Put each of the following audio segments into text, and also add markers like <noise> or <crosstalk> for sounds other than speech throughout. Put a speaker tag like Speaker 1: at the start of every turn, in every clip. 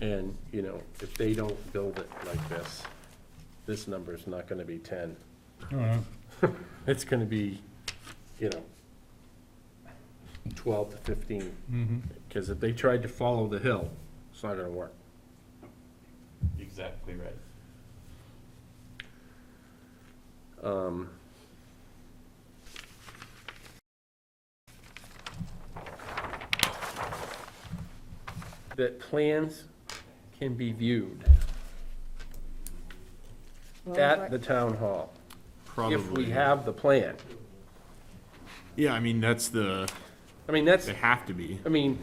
Speaker 1: And, you know, if they don't build it like this, this number's not gonna be ten. It's gonna be, you know, twelve to fifteen. Because if they tried to follow the hill, it's not gonna work.
Speaker 2: Exactly right.
Speaker 1: Um, That plans can be viewed
Speaker 3: Well,
Speaker 1: at
Speaker 3: Oh, right-
Speaker 1: the town hall,
Speaker 4: Probably.
Speaker 1: if we have the plan.
Speaker 4: Yeah, I mean, that's the,
Speaker 1: I mean, that's,
Speaker 4: they have to be.
Speaker 1: I mean,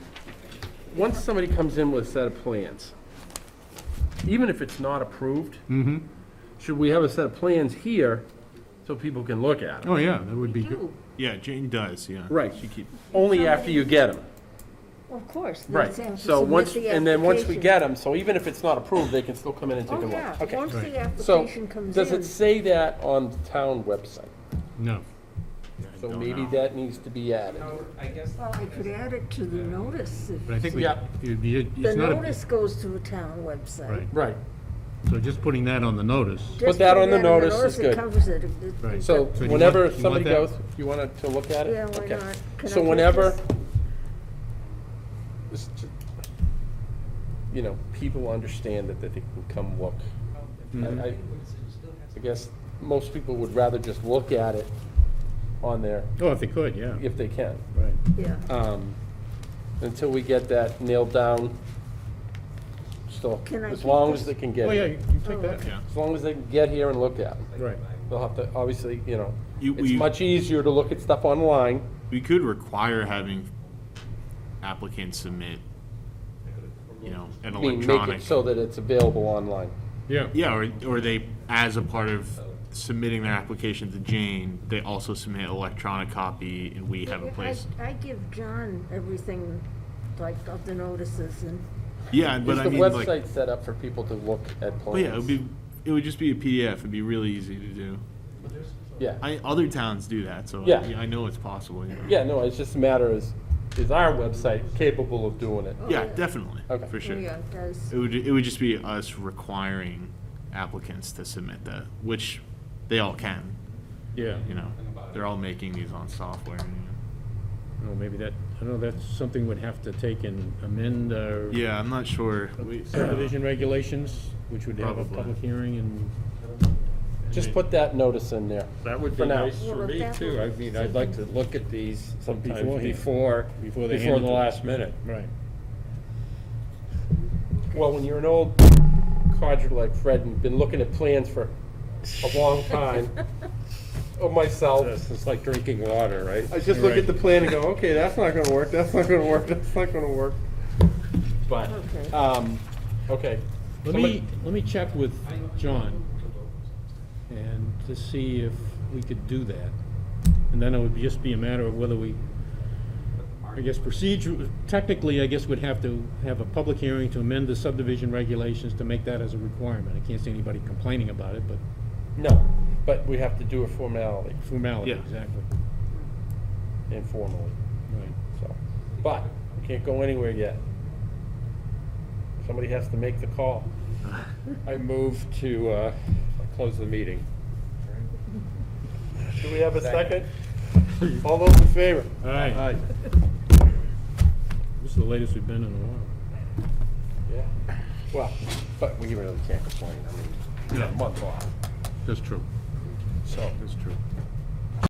Speaker 1: once somebody comes in with a set of plans, even if it's not approved, should we have a set of plans here so people can look at them?
Speaker 4: Oh, yeah, that would be good. Yeah, Jane does, yeah.
Speaker 1: Right.
Speaker 4: She keep,
Speaker 1: Only after you get them.
Speaker 3: Of course. they
Speaker 1: Right,
Speaker 3: have to
Speaker 1: so
Speaker 3: submit
Speaker 1: once,
Speaker 3: the
Speaker 1: and then once we
Speaker 3: application.
Speaker 1: get them, so even if it's not approved, they can still come in and take a
Speaker 3: Oh,
Speaker 1: look.
Speaker 3: yeah,
Speaker 1: Okay.
Speaker 3: once
Speaker 4: Right.
Speaker 3: the
Speaker 1: So,
Speaker 3: application comes
Speaker 1: does it
Speaker 3: in.
Speaker 1: say that on the town website?
Speaker 4: no.
Speaker 1: So maybe that needs to be added.
Speaker 3: Well, I could add it to the notice. if-
Speaker 4: But I think we,
Speaker 1: Yeah.
Speaker 4: it'd be-
Speaker 3: The
Speaker 4: it's not, a-
Speaker 3: notice goes to the town
Speaker 4: right,
Speaker 3: website.
Speaker 1: Right,
Speaker 4: so just putting that on the notice.
Speaker 3: Just
Speaker 1: that
Speaker 3: put
Speaker 1: on the
Speaker 3: it
Speaker 1: notice is
Speaker 3: it
Speaker 1: good.
Speaker 3: covers it. If it-
Speaker 4: Right.
Speaker 1: so
Speaker 4: do you want- you
Speaker 1: whenever
Speaker 4: want
Speaker 1: somebody
Speaker 4: that?
Speaker 1: goes, you wanted to look at it?
Speaker 3: Yeah, why
Speaker 1: Okay.
Speaker 3: not? Can I
Speaker 1: So
Speaker 3: take
Speaker 1: whenever,
Speaker 3: this?
Speaker 1: this t- you know, people understand that, that they can come look.
Speaker 4: Mm-hmm.
Speaker 1: I, I- I guess most people would rather just look at it on there
Speaker 4: Oh, if they could, yeah,
Speaker 1: if they can.
Speaker 4: right.
Speaker 3: Yeah,
Speaker 1: Um, Until we get that nailed down, still,
Speaker 3: Can I
Speaker 1: as
Speaker 3: keep
Speaker 1: long
Speaker 3: this?
Speaker 1: as they can get
Speaker 4: Oh, yeah,
Speaker 1: here.
Speaker 4: you can
Speaker 3: Oh,
Speaker 4: take that,
Speaker 3: okay.
Speaker 4: yeah,
Speaker 1: As long as they can get here and look at it.
Speaker 4: right.
Speaker 1: They'll have to, obviously, you know,
Speaker 4: You-
Speaker 1: it's
Speaker 4: you-
Speaker 1: much easier to look at stuff online.
Speaker 4: We could require having applicants submit, you know, an
Speaker 1: I mean, make
Speaker 4: electronic.
Speaker 1: it so that it's available online.
Speaker 4: Yeah. Yeah, or, or they, as a part of submitting their application to Jane, they also submit electronic copy and we have a
Speaker 3: I-
Speaker 4: place.
Speaker 3: I give John everything, like, of the notices and,
Speaker 4: Yeah,
Speaker 1: Is
Speaker 4: but
Speaker 1: the
Speaker 4: I mean, like.
Speaker 1: website set up for people to look at
Speaker 4: Well, yeah, it
Speaker 1: plans?
Speaker 4: would be, it would just be a PDF. It'd be really easy to do.
Speaker 1: Yeah,
Speaker 4: I, other towns do that, so
Speaker 1: Yeah.
Speaker 4: I, I know it's possible. you know.
Speaker 1: yeah, no, it's just a matter is, is our website capable of doing it?
Speaker 4: Yeah,
Speaker 3: yeah.
Speaker 4: definitely,
Speaker 1: Okay.
Speaker 4: for sure.
Speaker 3: yeah, it does.
Speaker 4: It would, it would just be us requiring applicants to submit that, which they all can,
Speaker 5: Yeah,
Speaker 4: you know. They're all making these on software. you Oh,
Speaker 5: no, maybe that, I don't know, that's something we'd have to take and amend our
Speaker 4: know. Yeah, I'm not sure. We-
Speaker 5: subdivision regulations, which would have a
Speaker 4: Probably.
Speaker 5: public hearing and.
Speaker 1: Just put that notice in there.
Speaker 5: That would
Speaker 1: For now.
Speaker 3: Yeah, but that would- <laughs>
Speaker 5: to look at these
Speaker 6: sometimes before,
Speaker 5: Before they
Speaker 6: before
Speaker 5: hand it
Speaker 6: the
Speaker 5: to-
Speaker 6: last minute.
Speaker 5: Right.
Speaker 1: Well, when you're an old codger like Fred and been looking at plans for a long time,
Speaker 3: <laughs>
Speaker 1: or myself,
Speaker 6: It's like drinking water, right?
Speaker 1: I just look at the plan and go, okay, that's not gonna work, that's not gonna work, that's not gonna work. But,
Speaker 3: Okay.
Speaker 1: um, okay.
Speaker 5: Let
Speaker 1: Somebody-
Speaker 5: me, let me check with John and to see if we could do that. And then it would just be a matter of whether we, I guess procedure, technically, I guess we'd have to have a public hearing to amend the subdivision regulations to make that as a requirement. I can't see anybody complaining about it, but
Speaker 1: No, but we have to do a formality,
Speaker 5: formality,
Speaker 4: Yeah.
Speaker 5: exactly.
Speaker 1: informally,
Speaker 5: Right.
Speaker 1: so. But, we can't go anywhere yet. Somebody has to make the call.
Speaker 4: <sighs>
Speaker 3: <laughs>
Speaker 6: I move to, uh, close the meeting.
Speaker 1: Do we have a second? All those in favor?
Speaker 5: All right, this is the latest we've been in a while.
Speaker 1: Yeah. Well, but we really can't complain, I mean, we got a month off,
Speaker 4: That's true.
Speaker 1: so.
Speaker 4: That's true.